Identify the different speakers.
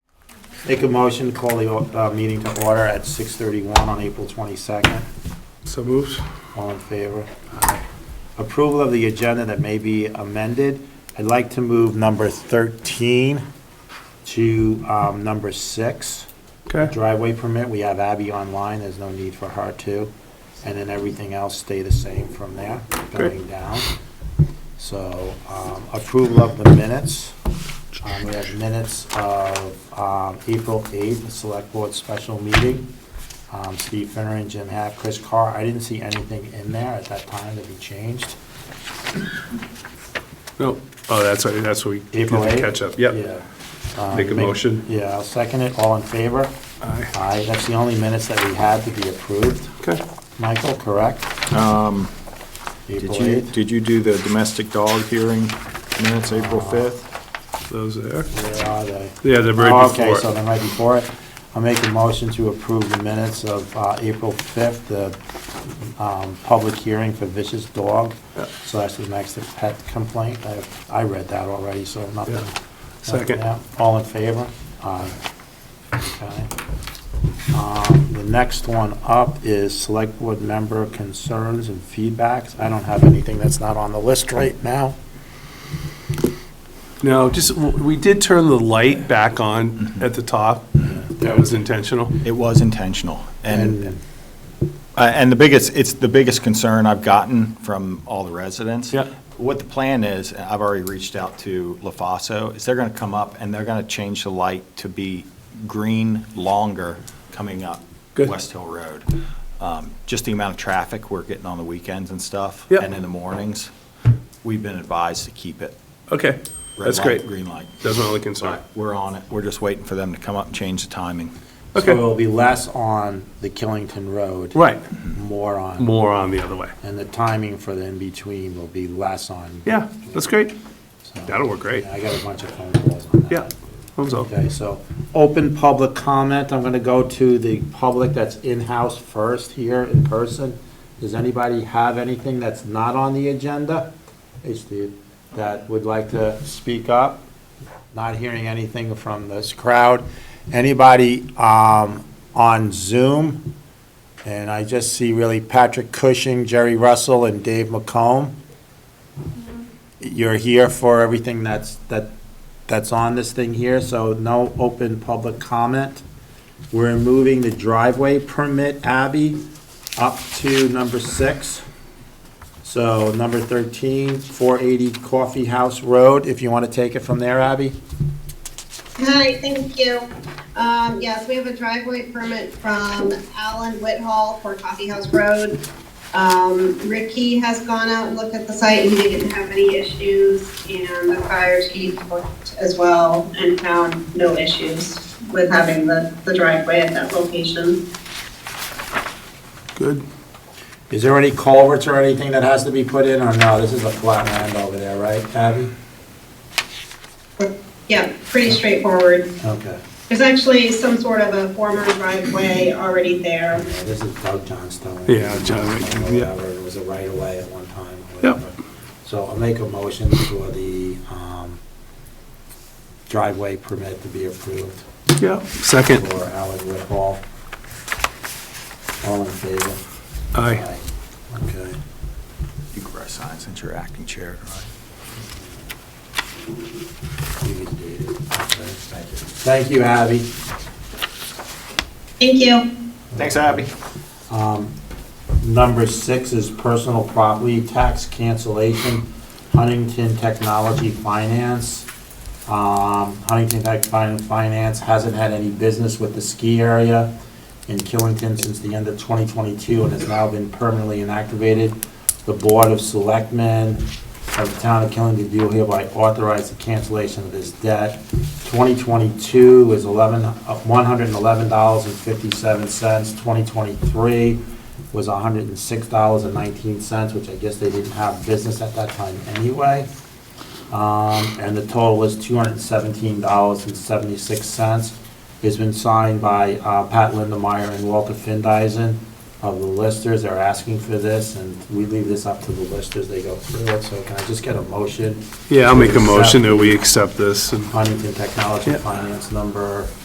Speaker 1: Make a motion to call the uh, meeting to order at 6:31 on April 22nd.
Speaker 2: So moved.
Speaker 1: All in favor? Aye. Approval of the agenda that may be amended. I'd like to move number 13 to um, number 6.
Speaker 2: Okay.
Speaker 1: Driveway permit, we have Abby online, there's no need for her to. And then everything else stay the same from there, going down. So um, approval of the minutes. Um, We have minutes of um, April 8th, the Select Board Special Meeting. Um, Steve Finner and Jim Hack, Chris Carr. I didn't see anything in there at that time to be changed.
Speaker 2: No, oh, that's, right, that's what we did
Speaker 1: April
Speaker 2: the
Speaker 1: 8th?
Speaker 2: catch up. Yep.
Speaker 1: Yeah. Um,
Speaker 2: Make a motion.
Speaker 1: Yeah, I'll second it. All in favor?
Speaker 2: Aye.
Speaker 1: Aye. That's the only minutes that we had to be approved.
Speaker 2: Okay.
Speaker 1: Michael, correct? April
Speaker 3: Um, Did you,
Speaker 1: 8th?
Speaker 3: did you do the domestic dog hearing minutes, April 5th?
Speaker 2: Those there.
Speaker 1: Where are they?
Speaker 2: Yeah, they're right
Speaker 1: Oh,
Speaker 2: before
Speaker 1: Okay,
Speaker 2: it.
Speaker 1: so they're right before it. I'll make a motion to approve the minutes of uh, April 5th, the um, public hearing for vicious dog
Speaker 2: Yeah.
Speaker 1: slash the next pet complaint. I- I read that already, so nothing.
Speaker 2: Yeah.
Speaker 1: nothing
Speaker 2: Second.
Speaker 1: now. All in favor? Aye. Okay. Um, The next one up is select board member concerns and feedbacks. I don't have anything that's not on the list right now.
Speaker 2: No, just, we did turn the light back on
Speaker 1: Mm-hmm.
Speaker 2: at the top. That was intentional.
Speaker 3: It was intentional. And,
Speaker 1: And
Speaker 3: uh, and the biggest, it's the biggest concern I've gotten from all the residents.
Speaker 2: Yeah.
Speaker 3: What the plan is, and I've already reached out to La Faso, is they're going to come up and they're going to change the light to be green longer coming up
Speaker 2: Good.
Speaker 3: West Hill Road. Um, Just the amount of traffic we're getting on the weekends and stuff.
Speaker 2: Yeah.
Speaker 3: And in the mornings, we've been advised to keep it.
Speaker 2: Okay,
Speaker 3: red
Speaker 2: that's
Speaker 3: light,
Speaker 2: great.
Speaker 3: Green light.
Speaker 2: That's my only concern.
Speaker 3: But we're on it. We're just waiting for them to come up and change the timing.
Speaker 1: So
Speaker 2: Okay.
Speaker 1: it'll be less on the Killington Road.
Speaker 2: Right,
Speaker 1: More on,
Speaker 2: more on the other way.
Speaker 1: and the timing for the in-between will be less on.
Speaker 2: Yeah, that's great.
Speaker 1: so-
Speaker 2: That'll work great.
Speaker 1: Yeah, I got a bunch of phone calls on that.
Speaker 2: Yeah, thumbs up.
Speaker 1: Okay, so open public comment. I'm going to go to the public that's in-house first here in person. Does anybody have anything that's not on the agenda? Hey, Steve, that would like to speak up? Not hearing anything from this crowd. Anybody um, on Zoom? And I just see really Patrick Cushing, Jerry Russell, and Dave McComb. You're here for everything that's, that that's on this thing here, so no open public comment. We're moving the driveway permit, Abby, up to number six. So number 13, 480 Coffee House Road, if you want to take it from there, Abby?
Speaker 4: Hi, thank you. Um, yes, we have a driveway permit from Alan Whitehall for Coffee House Road. Um, Ricky has gone out and looked at the site, and he didn't have any issues, and the fire chief looked as well and found no issues with having the, the driveway at that location.
Speaker 2: Good.
Speaker 1: Is there any culverts or anything that has to be put in, or no? This is a flat land over there, right, Abby?
Speaker 4: Yeah, pretty straightforward.
Speaker 1: Okay,
Speaker 4: There's actually some sort of a former driveway already there.
Speaker 1: yeah, this is Doug Johnstone.
Speaker 2: Yeah, John, yeah.
Speaker 1: Whatever, it was a right-of-way at one time, or
Speaker 2: Yep.
Speaker 1: whatever. So I'll make a motion for the um, driveway permit to be approved
Speaker 2: Yeah,
Speaker 1: for
Speaker 2: second.
Speaker 1: Alan Whitehall. All in favor?
Speaker 2: Aye.
Speaker 1: Okay.
Speaker 3: You can press sign since you're acting chair.
Speaker 1: You can do it. Okay, Thank you. Thank you, Abby.
Speaker 4: Thank you.
Speaker 3: Thanks, Abby.
Speaker 1: Um, Number six is personal property tax cancellation, Huntington Technology Finance. Um, Huntington Tech Fin- Finance hasn't had any business with the ski area in Killington since the end of 2022 and has now been permanently inactivated. The Board of Selectmen of the Town of Killington do hereby authorize the cancellation of this debt. 2022 is 11, uh, $111.57. 2023 was $106.19, which I guess they didn't have business at that time anyway. Um, And the total was $217.76. It's been signed by uh, Pat Lindemeyer and Walter Findeisen of the listers. They're asking for this, and we leave this up to the listers. They go through it. So can I just get a motion?
Speaker 2: Yeah, I'll make a motion that we accept this and
Speaker 1: Huntington Technology
Speaker 2: Yeah.
Speaker 1: Finance number